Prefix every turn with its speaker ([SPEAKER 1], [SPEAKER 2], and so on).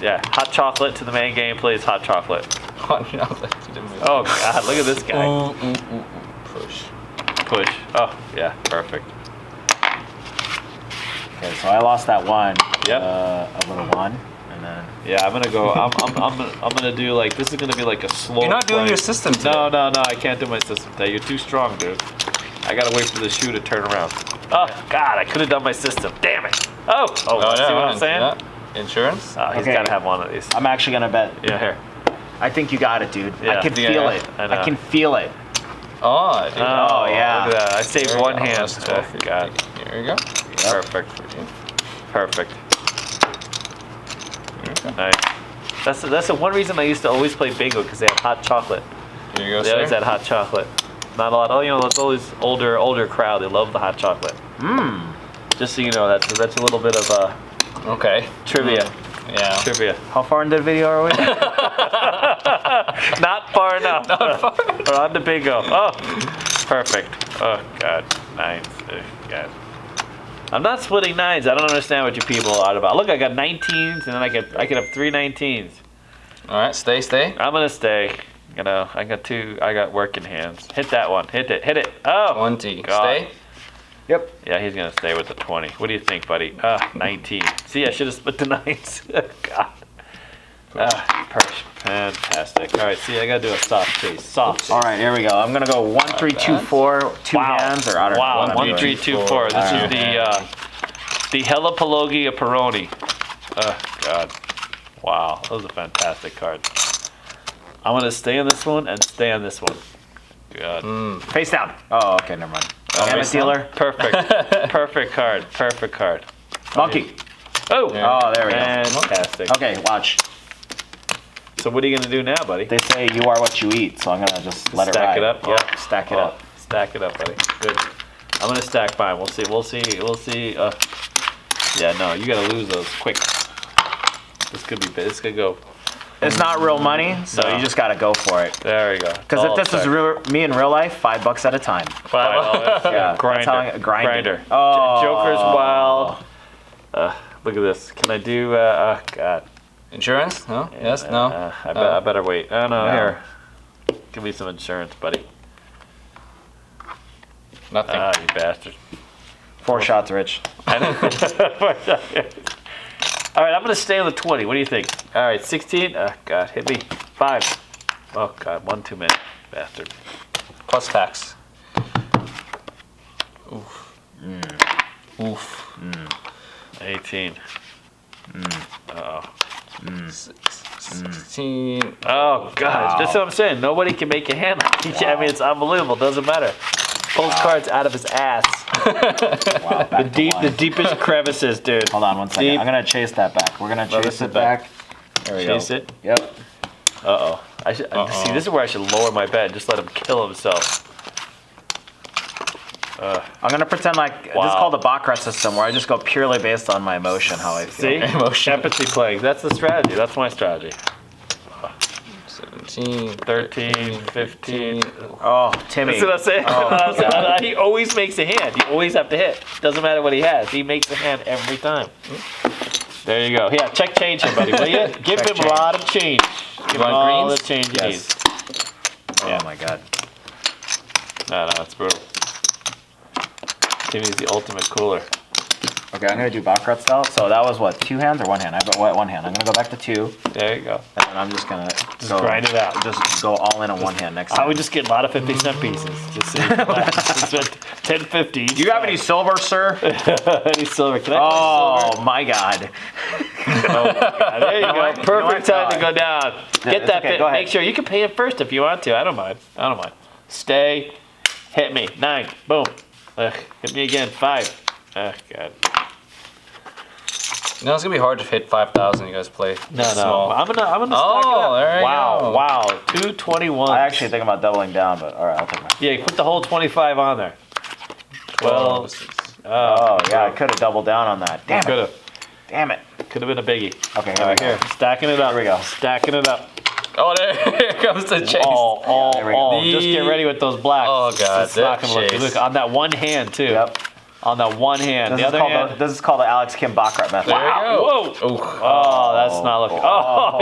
[SPEAKER 1] Yeah, hot chocolate to the main game, please. Hot chocolate.
[SPEAKER 2] Hot chocolate to the moon.
[SPEAKER 1] Oh God, look at this guy.
[SPEAKER 2] Ooh, ooh, ooh, ooh. Push.
[SPEAKER 1] Push. Oh yeah, perfect.
[SPEAKER 3] Okay, so I lost that one.
[SPEAKER 1] Yep.
[SPEAKER 3] Uh, a little one, and then
[SPEAKER 1] Yeah, I'm gonna go. I'm, I'm, I'm, gonna, I'm gonna do like this is gonna be like a slow.
[SPEAKER 2] You're not doing
[SPEAKER 1] play.
[SPEAKER 2] your system today.
[SPEAKER 1] No, no, no. I can't do my system today. You're too strong, dude. I gotta wait for the shoe to turn around. Oh God, I could have done my system. Damn it. Oh, oh. see what I'm saying?
[SPEAKER 2] yeah. Insurance?
[SPEAKER 1] Oh, he's
[SPEAKER 3] Okay.
[SPEAKER 1] gotta have one of these.
[SPEAKER 3] I'm actually gonna bet.
[SPEAKER 1] Yeah, here.
[SPEAKER 3] I think you got it, dude.
[SPEAKER 1] Yeah.
[SPEAKER 3] I can
[SPEAKER 1] Yeah,
[SPEAKER 3] feel
[SPEAKER 1] yeah.
[SPEAKER 3] it.
[SPEAKER 1] I
[SPEAKER 3] I,
[SPEAKER 1] know.
[SPEAKER 3] can feel it.
[SPEAKER 2] Oh, dude.
[SPEAKER 1] Oh,
[SPEAKER 3] yeah.
[SPEAKER 1] look at that. I saved
[SPEAKER 2] There you
[SPEAKER 1] one
[SPEAKER 2] go.
[SPEAKER 1] hand.
[SPEAKER 2] That's
[SPEAKER 1] Oh,
[SPEAKER 2] 12.50.
[SPEAKER 1] God.
[SPEAKER 2] Here we go.
[SPEAKER 1] Perfect. Perfect.
[SPEAKER 2] Here we go.
[SPEAKER 1] Nice. That's that's the one reason I used to always play bingo because they have hot chocolate.
[SPEAKER 2] Here you go,
[SPEAKER 1] They always
[SPEAKER 2] sir.
[SPEAKER 1] had hot chocolate. Not a lot. Oh, you know, it's always older, older crowd. They love the hot chocolate. Hmm.
[SPEAKER 3] Mmm.
[SPEAKER 1] Just so you know, that's that's a little bit of uh,
[SPEAKER 2] Okay.
[SPEAKER 1] trivia.
[SPEAKER 2] Yeah.
[SPEAKER 1] Hmm. Trivia.
[SPEAKER 3] How far into the video are we?
[SPEAKER 1] Not far enough. Not far. We're on to bingo. Oh, perfect. Oh God, nines. Oh, God. I'm not splitting nines. I don't understand what you people are about. Look, I got 19s, and then I could I could have three 19s.
[SPEAKER 2] All right, stay, stay.
[SPEAKER 1] I'm gonna stay. You know, I got two. I got working hands. Hit that one. Hit it. Hit it. Oh.
[SPEAKER 2] 20.
[SPEAKER 1] God.
[SPEAKER 2] Stay.
[SPEAKER 3] yep.
[SPEAKER 1] Yeah, he's gonna stay with the 20. What do you think, buddy? Uh, 19. See, I should have split the nines. God. Ah, perch. Fantastic. All right, see, I gotta do a soft chase. Soft chase.
[SPEAKER 3] All right, here we go. I'm gonna go one, three, two,
[SPEAKER 2] bad.
[SPEAKER 3] four, two
[SPEAKER 1] Wow.
[SPEAKER 3] hands, or I don't know.
[SPEAKER 1] wow.
[SPEAKER 3] what I'm
[SPEAKER 1] One,
[SPEAKER 3] doing.
[SPEAKER 1] three, two, four. This
[SPEAKER 3] All
[SPEAKER 1] is
[SPEAKER 3] right.
[SPEAKER 1] the uh, the Helipologia Peroni. Oh God. Wow, those are fantastic cards. I'm gonna stay on this one and stay on this one. God.
[SPEAKER 3] Face down. Oh, okay, never mind. Damn it,
[SPEAKER 2] face down.
[SPEAKER 3] dealer.
[SPEAKER 1] Perfect. perfect card. Perfect card.
[SPEAKER 3] Monkey.
[SPEAKER 1] Oh.
[SPEAKER 2] Yeah.
[SPEAKER 3] Oh, there we go.
[SPEAKER 1] Fantastic.
[SPEAKER 3] Okay, watch.
[SPEAKER 1] So what are you gonna do now, buddy?
[SPEAKER 3] They say you are what you eat, so I'm gonna just let
[SPEAKER 1] stack
[SPEAKER 3] it
[SPEAKER 1] it
[SPEAKER 3] ride.
[SPEAKER 1] up. Yeah,
[SPEAKER 3] Stack it
[SPEAKER 1] Oh,
[SPEAKER 3] up.
[SPEAKER 1] Stack it up, buddy. Good. I'm gonna stack mine. We'll see. We'll see. We'll see. Uh, yeah, no, you gotta lose those quick. This could be. big. This could go.
[SPEAKER 3] It's not real money, so
[SPEAKER 1] No.
[SPEAKER 3] you just gotta go for it.
[SPEAKER 1] There we go.
[SPEAKER 3] Because
[SPEAKER 1] All
[SPEAKER 3] if this was
[SPEAKER 1] stacked.
[SPEAKER 3] real, me in real life, five bucks at a time.
[SPEAKER 1] Five dollars.
[SPEAKER 3] Yeah,
[SPEAKER 1] Grinder.
[SPEAKER 3] that's how I- grinder.
[SPEAKER 1] Grinder.
[SPEAKER 3] Oh.
[SPEAKER 1] J- Joker's wild. Uh, look at this. Can I do? Uh, oh God.
[SPEAKER 2] Insurance? No? Yes?
[SPEAKER 1] Uh,
[SPEAKER 2] No?
[SPEAKER 1] uh, I, be-
[SPEAKER 2] No.
[SPEAKER 1] I better wait. Oh no,
[SPEAKER 3] No.
[SPEAKER 1] here. Give me some insurance, buddy.
[SPEAKER 2] Nothing.
[SPEAKER 1] Ah, you bastard.
[SPEAKER 3] Four shots, Rich.
[SPEAKER 1] All right, I'm gonna stay on the 20. What do you think? All right, 16. Oh God, hit me. Five. Oh God, one too many, bastard.
[SPEAKER 2] Plus tax. Oof. Mm. Oof.
[SPEAKER 1] Mm. 18.
[SPEAKER 2] S- s-
[SPEAKER 1] Mm.
[SPEAKER 2] 16.
[SPEAKER 1] Oh God, that's
[SPEAKER 3] Wow.
[SPEAKER 1] what I'm saying. Nobody can make a hand. Like he can- I mean, it's unbelievable. Doesn't matter. Pulls cards out of his ass.
[SPEAKER 3] Wow, back to
[SPEAKER 1] Deep,
[SPEAKER 3] one.
[SPEAKER 1] the deepest crevices, dude.
[SPEAKER 3] Hold on one second.
[SPEAKER 1] Deep.
[SPEAKER 3] I'm gonna chase that back. We're gonna
[SPEAKER 1] Let
[SPEAKER 3] chase
[SPEAKER 1] it
[SPEAKER 3] it back. There we
[SPEAKER 1] Chase
[SPEAKER 3] go.
[SPEAKER 1] it.
[SPEAKER 3] Yep.
[SPEAKER 1] Uh oh. I should I- see.
[SPEAKER 2] Uh-oh.
[SPEAKER 1] This is where I should lower my bet. Just let him kill himself.
[SPEAKER 3] I'm gonna pretend like this
[SPEAKER 1] Wow.
[SPEAKER 3] is called the Baccarat system, where I just go purely based on my emotion, how I feel.
[SPEAKER 1] See?
[SPEAKER 2] Emotion.
[SPEAKER 1] Empathy plays. That's the strategy. That's my strategy.
[SPEAKER 2] 17.
[SPEAKER 1] 13, 15.
[SPEAKER 3] Oh, Timmy.
[SPEAKER 1] That's what I'm saying. That's what I'm saying. he always makes a hand. You always have to hit. Doesn't matter what he has. He makes a hand every time. There you go. Yeah, check change him, buddy. Will you? Give
[SPEAKER 3] Check
[SPEAKER 1] him
[SPEAKER 3] change.
[SPEAKER 1] a lot of change. Give him
[SPEAKER 2] want
[SPEAKER 1] all
[SPEAKER 2] greens?
[SPEAKER 1] the change he
[SPEAKER 3] Yes.
[SPEAKER 1] needs.
[SPEAKER 3] Oh my God.
[SPEAKER 1] No, no, it's brutal. Timmy's the ultimate cooler.
[SPEAKER 3] Okay, I'm gonna do Baccarat style. So that was what two hands or one hand? I bet what one hand. I'm gonna go back to two,
[SPEAKER 1] There you go.
[SPEAKER 3] and then I'm just gonna just
[SPEAKER 1] grind it out.
[SPEAKER 3] Just go all in on one hand next
[SPEAKER 1] I
[SPEAKER 3] time.
[SPEAKER 1] would just get a lot of 50 cent pieces. Just so you can buy- just spend 1050.
[SPEAKER 3] do you have any silver, sir?
[SPEAKER 1] any silver? Can I buy silver?
[SPEAKER 3] Oh my God.
[SPEAKER 1] There you go.
[SPEAKER 3] what? You know
[SPEAKER 1] Perfect
[SPEAKER 3] what?
[SPEAKER 1] time to
[SPEAKER 3] No,
[SPEAKER 1] go down. Get
[SPEAKER 3] it's
[SPEAKER 1] that
[SPEAKER 3] okay.
[SPEAKER 1] bit.
[SPEAKER 3] Go ahead.
[SPEAKER 1] Make sure you can pay it first if you want to. I don't mind. I don't mind. Stay. Hit me. Nine. Boom. Ugh. Hit me again. Five. Oh God.
[SPEAKER 2] No, it's gonna be hard to hit 5,000. You guys play.
[SPEAKER 1] No, no.
[SPEAKER 2] small.
[SPEAKER 1] I'm gonna. I'm gonna stock
[SPEAKER 2] Oh,
[SPEAKER 1] it up.
[SPEAKER 2] there you
[SPEAKER 1] wow.
[SPEAKER 2] go.
[SPEAKER 1] Wow. Two twenty-one.
[SPEAKER 3] I actually think about doubling down, but all right, I'll take my.
[SPEAKER 1] Yeah. You put the whole twenty-five on there.
[SPEAKER 2] Well,
[SPEAKER 1] Twelve. Oh.
[SPEAKER 3] Oh yeah, I could have doubled down on that. Damn
[SPEAKER 1] Could
[SPEAKER 3] it.
[SPEAKER 1] have.
[SPEAKER 3] Damn it.
[SPEAKER 1] Could have been a biggie.
[SPEAKER 3] Okay, here we go.
[SPEAKER 1] Here. Stacking it up.
[SPEAKER 3] Here we go.
[SPEAKER 1] Stacking it up.
[SPEAKER 2] oh, there here comes the chase.
[SPEAKER 1] All. All.
[SPEAKER 3] there we go.
[SPEAKER 1] All. Just get ready with those blacks.
[SPEAKER 2] Oh, God,
[SPEAKER 1] It's not
[SPEAKER 2] that
[SPEAKER 1] gonna look.
[SPEAKER 2] chase.
[SPEAKER 1] Look on that one hand too.
[SPEAKER 3] Yep.
[SPEAKER 1] on the one hand.
[SPEAKER 3] This,
[SPEAKER 1] the
[SPEAKER 3] is
[SPEAKER 1] other
[SPEAKER 3] called the,
[SPEAKER 1] hand.
[SPEAKER 3] this is called the Alex Kim Baccarat method.
[SPEAKER 2] There you
[SPEAKER 1] Wow,
[SPEAKER 2] go. Whoa.
[SPEAKER 1] oh, that's not looking. Oh,